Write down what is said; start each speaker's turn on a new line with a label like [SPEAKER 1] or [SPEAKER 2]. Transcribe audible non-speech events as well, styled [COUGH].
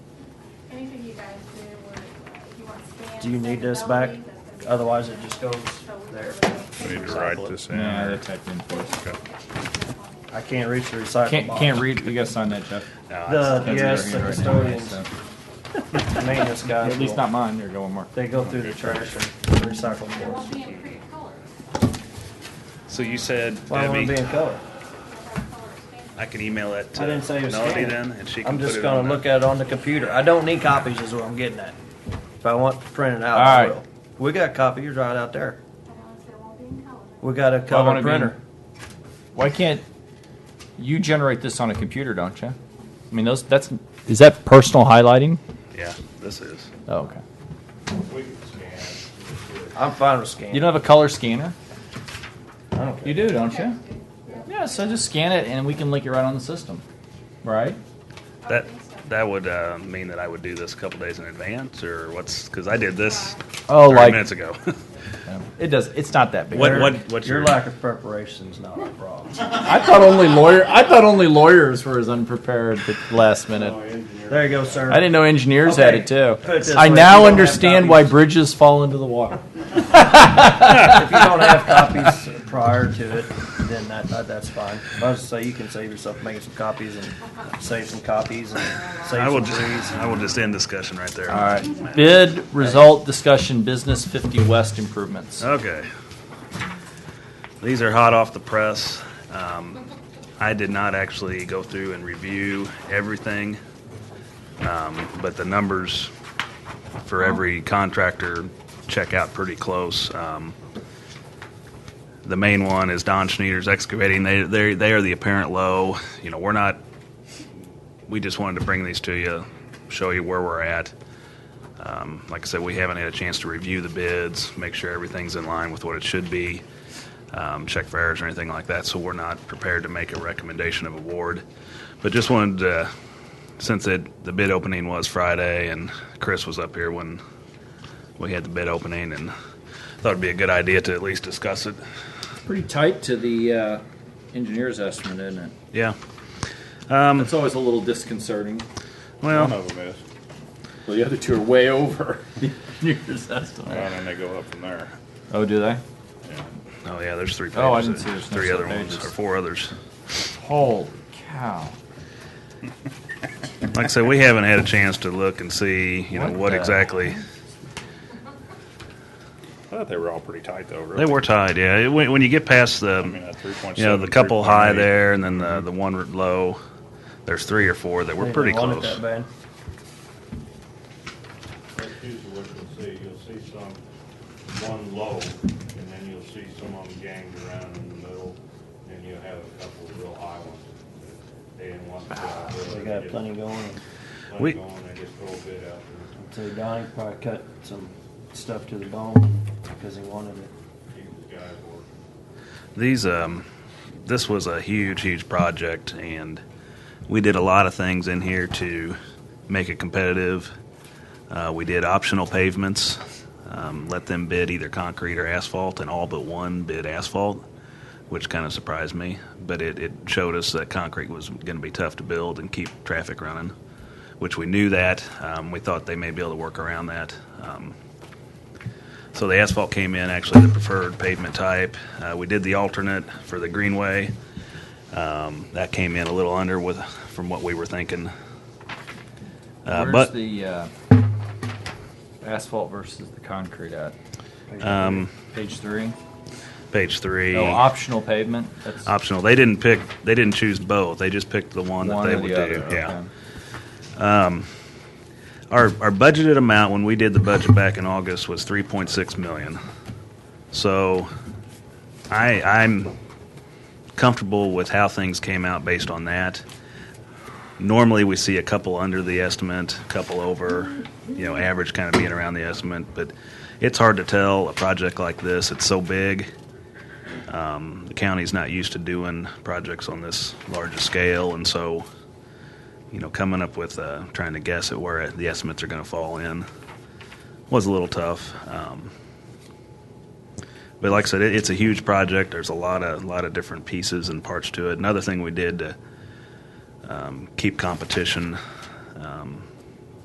[SPEAKER 1] anything you guys do, where uh, if you want scans.
[SPEAKER 2] Do you need this back? Otherwise, it just goes there.
[SPEAKER 3] We need to write this in.
[SPEAKER 4] Nah,
[SPEAKER 3] or-
[SPEAKER 4] they typed in for us.
[SPEAKER 3] Okay.
[SPEAKER 2] I can't reach the recycle
[SPEAKER 4] Can't,
[SPEAKER 2] box.
[SPEAKER 4] can't read, you gotta sign that, Jeff.
[SPEAKER 2] The,
[SPEAKER 4] That's in your
[SPEAKER 2] yes, the
[SPEAKER 4] hand right now, right?
[SPEAKER 2] custodians,
[SPEAKER 4] So-
[SPEAKER 2] maintenance guys.
[SPEAKER 4] At least
[SPEAKER 2] will-
[SPEAKER 4] not mine, you're going more.
[SPEAKER 2] They go through the trash and recycle
[SPEAKER 1] It
[SPEAKER 2] boards.
[SPEAKER 1] won't be in pretty colors.
[SPEAKER 5] So you said,
[SPEAKER 2] Why won't it be
[SPEAKER 5] Debbie,
[SPEAKER 2] in color?
[SPEAKER 5] I can email it
[SPEAKER 2] I didn't say it
[SPEAKER 5] to
[SPEAKER 2] was
[SPEAKER 5] Melody
[SPEAKER 2] scanned.
[SPEAKER 5] then, and she can
[SPEAKER 2] I'm
[SPEAKER 5] put
[SPEAKER 2] just
[SPEAKER 5] it on
[SPEAKER 2] gonna
[SPEAKER 5] the.
[SPEAKER 2] look at it on the computer. I don't need copies is what I'm getting at. If I want to print it out,
[SPEAKER 4] All
[SPEAKER 2] I
[SPEAKER 4] right.
[SPEAKER 2] will. We got copiers right out there.
[SPEAKER 1] Otherwise, it won't be in color.
[SPEAKER 2] We got a
[SPEAKER 4] won't
[SPEAKER 2] color
[SPEAKER 4] it be in-
[SPEAKER 2] printer.
[SPEAKER 4] Why can't, you generate this on a computer, don't you? I mean, those, that's, is that personal highlighting?
[SPEAKER 5] Yeah, this is.
[SPEAKER 4] Oh, okay.
[SPEAKER 2] I'm fine with scanning.
[SPEAKER 4] You don't have a color scanner?
[SPEAKER 2] I don't care.
[SPEAKER 4] You do, don't you? Yeah, so just scan it and we can link it right on the system, right?
[SPEAKER 5] That, that would uh, mean that I would do this a couple days in advance, or what's, because I did this
[SPEAKER 4] Oh,
[SPEAKER 5] 30
[SPEAKER 4] like,
[SPEAKER 5] minutes ago. [LAUGHS]
[SPEAKER 4] it does, it's not that big.
[SPEAKER 5] What- what- what's
[SPEAKER 2] Your
[SPEAKER 5] your-
[SPEAKER 2] lack of preparation is not a problem.
[SPEAKER 4] I thought only lawyer, I thought only lawyers were as unprepared at the last minute.
[SPEAKER 2] There you go, sir.
[SPEAKER 4] I didn't know engineers had it too.
[SPEAKER 2] Okay, put it this
[SPEAKER 4] I
[SPEAKER 2] way,
[SPEAKER 4] now
[SPEAKER 2] you don't have
[SPEAKER 4] understand why
[SPEAKER 2] copies.
[SPEAKER 4] bridges fall into the water.
[SPEAKER 2] If you don't have copies prior to it, then that, that that's fine. I was gonna say you can save yourself making some copies and save some copies and save
[SPEAKER 5] I
[SPEAKER 2] some
[SPEAKER 5] will just,
[SPEAKER 2] trees.
[SPEAKER 5] I will just end discussion right there.
[SPEAKER 4] All right. Bid result discussion business 50 West improvements.
[SPEAKER 5] Okay. These are hot off the press. Um, I did not actually go through and review everything, um, but the numbers for every contractor check out pretty close. Um, the main one is Don Schneider's excavating. They they they are the apparent low. You know, we're not. We just wanted to bring these to you, show you where we're at. Um, like I said, we haven't had a chance to review the bids, make sure everything's in line with what it should be, um, check for errors or anything like that. So we're not prepared to make a recommendation of award. But just wanted to, since it, the bid opening was Friday and Chris was up here when we had the bid opening and thought it'd be a good idea to at least discuss it.
[SPEAKER 4] Pretty tight to the uh, engineer's estimate, isn't it?
[SPEAKER 5] Yeah.
[SPEAKER 4] It's always a little disconcerting.
[SPEAKER 3] One
[SPEAKER 5] Well,
[SPEAKER 3] of them is,
[SPEAKER 4] Well, the other two are way over [LAUGHS] the engineer's estimate.
[SPEAKER 3] and then they go up from there.
[SPEAKER 4] Oh, do they?
[SPEAKER 5] oh yeah, there's three pages.
[SPEAKER 4] Oh, I didn't see
[SPEAKER 5] There's
[SPEAKER 4] there's no
[SPEAKER 5] three other
[SPEAKER 4] set
[SPEAKER 5] ones or
[SPEAKER 4] pages.
[SPEAKER 5] four others.
[SPEAKER 4] Holy cow.
[SPEAKER 5] Like I said, we haven't had a chance to look and see, you know,
[SPEAKER 4] What
[SPEAKER 5] what
[SPEAKER 4] the-
[SPEAKER 5] exactly.
[SPEAKER 3] I thought they were all pretty tight though, really.
[SPEAKER 5] They were tied, yeah. It- When, when you get past the,
[SPEAKER 3] I mean, that three point
[SPEAKER 5] you know,
[SPEAKER 3] seven.
[SPEAKER 5] the couple high there, and then the the one low. There's three or four that were
[SPEAKER 2] They
[SPEAKER 5] pretty
[SPEAKER 2] didn't want it
[SPEAKER 5] close.
[SPEAKER 2] that bad.
[SPEAKER 6] That's usually what you'll see. You'll see some, one low, and then you'll see some of them ganged around in the middle, and you'll have a couple of real high ones. They didn't want to.
[SPEAKER 2] We got plenty going.
[SPEAKER 5] We-
[SPEAKER 6] Plenty going, they just throw a bid out
[SPEAKER 2] So Donnie probably cut some stuff to the bone because he wanted it.
[SPEAKER 6] there, keep the guys working.
[SPEAKER 5] These um, this was a huge, huge project, and we did a lot of things in here to make it competitive. Uh, we did optional pavements, um, let them bid either concrete or asphalt, and all but one bid asphalt, which kind of surprised me. But it, it showed us that concrete was going to be tough to build and keep traffic running, which we knew that. Um, we thought they may be able to work around that. Um, so the asphalt came in actually the preferred pavement type. Uh, we did the alternate for the greenway. Um, that came in a little under with from what we were thinking. Uh,
[SPEAKER 4] Where's
[SPEAKER 5] but
[SPEAKER 4] the uh, asphalt versus the concrete at?
[SPEAKER 5] um,
[SPEAKER 4] Page three?
[SPEAKER 5] page three,
[SPEAKER 4] No, Oh, optional pavement? That's
[SPEAKER 5] optional. They didn't pick. They didn't choose both. They just picked the one,
[SPEAKER 4] one
[SPEAKER 5] that they
[SPEAKER 4] or the
[SPEAKER 5] would
[SPEAKER 4] other.
[SPEAKER 5] do. Yeah.
[SPEAKER 4] okay.
[SPEAKER 5] Our, our budgeted amount when we did the budget back in August was 3.6 million. So I, I'm comfortable with how things came out based on that. Normally, we see a couple under the estimate, a couple over, you know, average kind of being around the estimate, but it's hard to tell a project like this. It's so big. Um, the county's not used to doing projects on this large a scale, and so you know, coming up with uh, trying to guess at where the estimates are going to fall in was a little tough. Um, but like I said, it, it's a huge project. There's a lot of lot of different pieces and parts to it. Another thing we did to um, keep competition um,